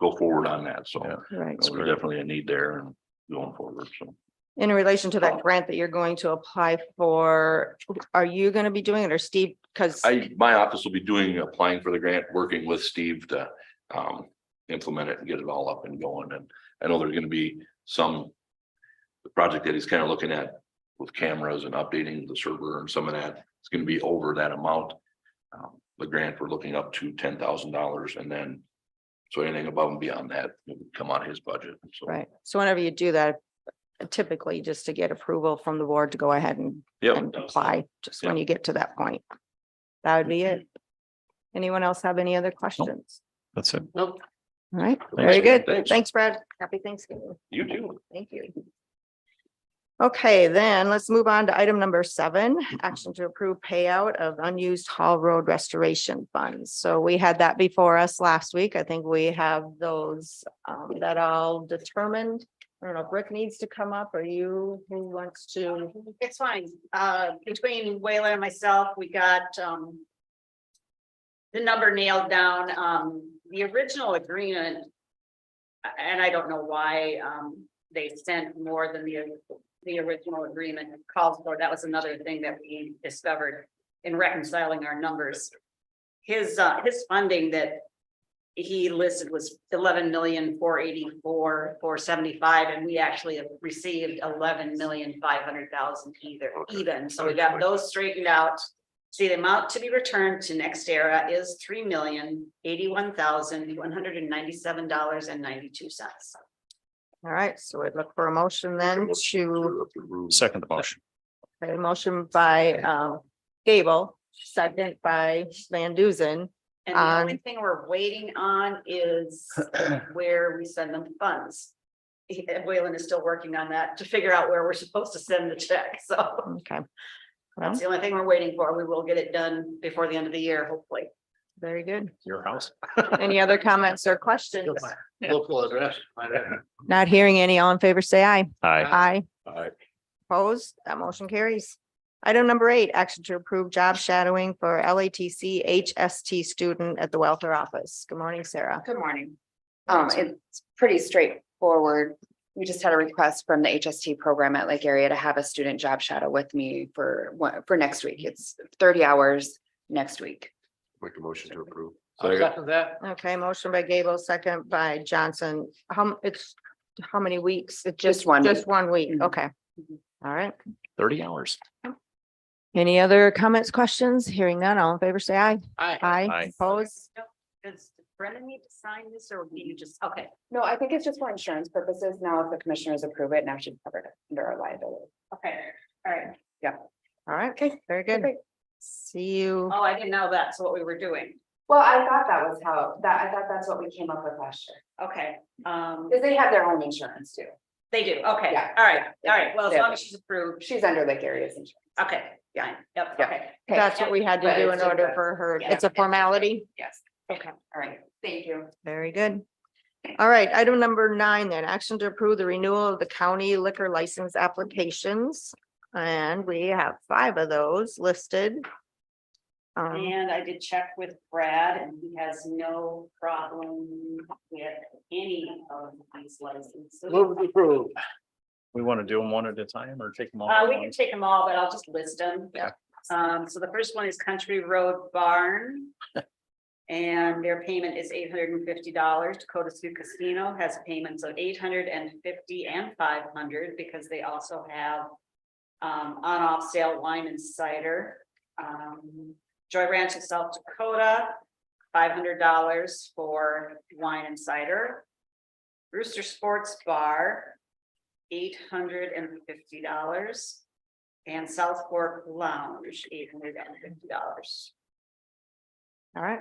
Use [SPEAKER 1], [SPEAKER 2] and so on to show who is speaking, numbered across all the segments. [SPEAKER 1] go forward on that, so.
[SPEAKER 2] Yeah.
[SPEAKER 3] Right.
[SPEAKER 1] There's definitely a need there and going forward, so.
[SPEAKER 3] In relation to
[SPEAKER 1] Oh.
[SPEAKER 3] that grant that you're going to apply for, are you going to be doing it or Steve? Because,
[SPEAKER 1] I, my office will be doing, applying for the grant, working with Steve to um implement it and get it all up and going. And I know there's gonna be some. The project that he's kind of looking at with cameras and updating the server and some of that, it's gonna be over that amount. Um, The grant, we're looking up to ten thousand dollars and then. So anything above and beyond that would come out of his budget, so.
[SPEAKER 3] right, so whenever you do that, typically just to get approval from the board to go ahead and
[SPEAKER 1] Yep.
[SPEAKER 3] and apply, just when
[SPEAKER 1] Yeah.
[SPEAKER 3] you get to that point. That would be
[SPEAKER 1] Mm-hmm.
[SPEAKER 3] it. Anyone else have any other questions?
[SPEAKER 2] That's it.
[SPEAKER 1] Nope.
[SPEAKER 3] All right,
[SPEAKER 1] Thanks.
[SPEAKER 3] very good.
[SPEAKER 1] Thanks.
[SPEAKER 3] Thanks, Brad. Happy Thanksgiving.
[SPEAKER 1] You too.
[SPEAKER 3] Thank you. Okay, then let's move on to item number seven, action to approve payout of unused Hall Road restoration funds. So we had that before us last week. I think we have those um, that all determined. I don't know if Rick needs to come up or you, who wants to?
[SPEAKER 4] It's fine. Uh, between Wayla and myself, we got, um. The number nailed down, um, the original agreement. a- And I don't know why, um, they sent more than the, the original agreement calls for. That was another thing that we discovered in reconciling our numbers. His, uh, his funding that he listed was eleven million, four eighty-four, four seventy-five, and we actually have received eleven million, five hundred thousand either,
[SPEAKER 1] Okay.
[SPEAKER 4] even, so we got those straightened out. See, the amount to be returned to Next Era is three million, eighty-one thousand, one hundred and ninety-seven dollars and ninety-two cents.
[SPEAKER 3] All right, so I'd look for a motion then to
[SPEAKER 2] Second the motion.
[SPEAKER 3] Okay, motion by um Gable, second by Van Duzen.
[SPEAKER 4] And the only
[SPEAKER 3] On-
[SPEAKER 4] thing we're waiting on is where we send them funds. He- Wayland is still working on that to figure out where we're supposed to send the check, so.
[SPEAKER 3] Okay.
[SPEAKER 4] That's
[SPEAKER 3] Well,
[SPEAKER 4] the only thing we're waiting for. We will get it done before the end of the year, hopefully.
[SPEAKER 3] very good.
[SPEAKER 2] Your house.
[SPEAKER 3] Any other comments or questions?
[SPEAKER 1] Local address.
[SPEAKER 3] Not hearing any. All in favor, say aye.
[SPEAKER 2] Aye.
[SPEAKER 3] Aye.
[SPEAKER 1] Alright.
[SPEAKER 3] Opposed? That motion carries. Item number eight, action to approve job shadowing for LATC HST student at the welfare office. Good morning, Sarah.
[SPEAKER 5] Good morning. Um, it's pretty straightforward. We just had a request from the HST program at Lake Area to have a student job shadow with me for one, for next week. It's thirty hours next week.
[SPEAKER 1] Make a motion to approve.
[SPEAKER 3] Okay, motion by Gable, second by Johnson. How, m- it's, how many weeks? It's
[SPEAKER 5] Just one
[SPEAKER 3] Just
[SPEAKER 5] week.
[SPEAKER 3] one week.
[SPEAKER 5] Mhm.
[SPEAKER 3] Okay. All right.
[SPEAKER 2] Thirty hours.
[SPEAKER 3] Any other comments, questions? Hearing none, all in favor, say aye. Aye.
[SPEAKER 2] Aye.
[SPEAKER 3] Aye, opposed,
[SPEAKER 4] Does Brendan need to sign this or will you just, okay,
[SPEAKER 5] No, I think it's just for insurance purposes. Now, if the commissioners approve it, now she's covered under our liability.
[SPEAKER 4] okay, all right.
[SPEAKER 3] all right, okay, very good.
[SPEAKER 5] Perfect.
[SPEAKER 3] See you,
[SPEAKER 4] Oh, I didn't know that's what we were doing.
[SPEAKER 5] Well, I thought that was how, that, I thought that's what we came up with last year,
[SPEAKER 4] Okay, um,
[SPEAKER 5] because they have their own insurance too.
[SPEAKER 4] they do, okay, all
[SPEAKER 5] Yeah.
[SPEAKER 4] right, all right. Well, as
[SPEAKER 5] Yeah.
[SPEAKER 4] long as she's approved,
[SPEAKER 5] She's under Lake Area's insurance.
[SPEAKER 4] okay, yeah, yep,
[SPEAKER 5] Yeah.
[SPEAKER 4] okay.
[SPEAKER 5] Okay.
[SPEAKER 3] that's what we had to
[SPEAKER 5] But
[SPEAKER 3] do
[SPEAKER 5] it's
[SPEAKER 3] in
[SPEAKER 5] just
[SPEAKER 3] order
[SPEAKER 5] a-
[SPEAKER 3] for her,
[SPEAKER 5] yeah.
[SPEAKER 3] it's a formality,
[SPEAKER 5] Yes.
[SPEAKER 4] Okay.
[SPEAKER 5] All right, thank you.
[SPEAKER 3] very good. All right, item number nine then, action to approve the renewal of the county liquor license applications. And we have five of those listed. Um,
[SPEAKER 4] And I did check with Brad and he has no problem with any of these licenses.
[SPEAKER 2] We want to do them one at a time or take them all?
[SPEAKER 4] Uh,
[SPEAKER 2] at
[SPEAKER 4] we can
[SPEAKER 2] once?
[SPEAKER 4] take them all, but I'll just list them.
[SPEAKER 2] Yeah.
[SPEAKER 4] Um, so the first one is Country Road Barn. And their payment is eight hundred and fifty dollars. Dakota Sioux Casino has payments of eight hundred and fifty and five hundred because they also have. Um, on off sale wine and cider. Um, Joy Ranch of South Dakota, five hundred dollars for wine and cider. Rooster Sports Bar, eight hundred and fifty dollars. And South Fork Lounge, eight hundred and fifty dollars.
[SPEAKER 3] all right.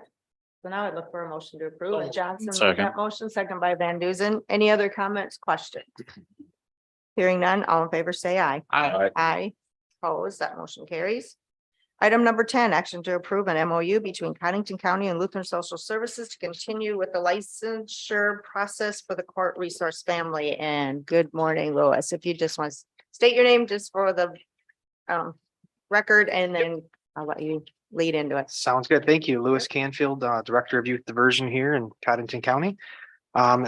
[SPEAKER 3] So now I'd look for a motion to approve. And Johnson, made
[SPEAKER 2] Second.
[SPEAKER 3] that motion, second by Van Duzen. Any other comments, questions? Hearing none, all in favor, say aye.
[SPEAKER 2] Aye.
[SPEAKER 3] Aye. Opposed, that motion carries. Item number ten, action to approve an MOU between Cottington County and Lutheran Social Services to continue with the licensure process for the court resource family. And good morning, Lois. If you just want to state your name just for the um, record, and then I'll let you lead into it.
[SPEAKER 6] Sounds good. Thank you. Lewis Canfield, uh, Director of Youth Diversion here in Cottington County. Um,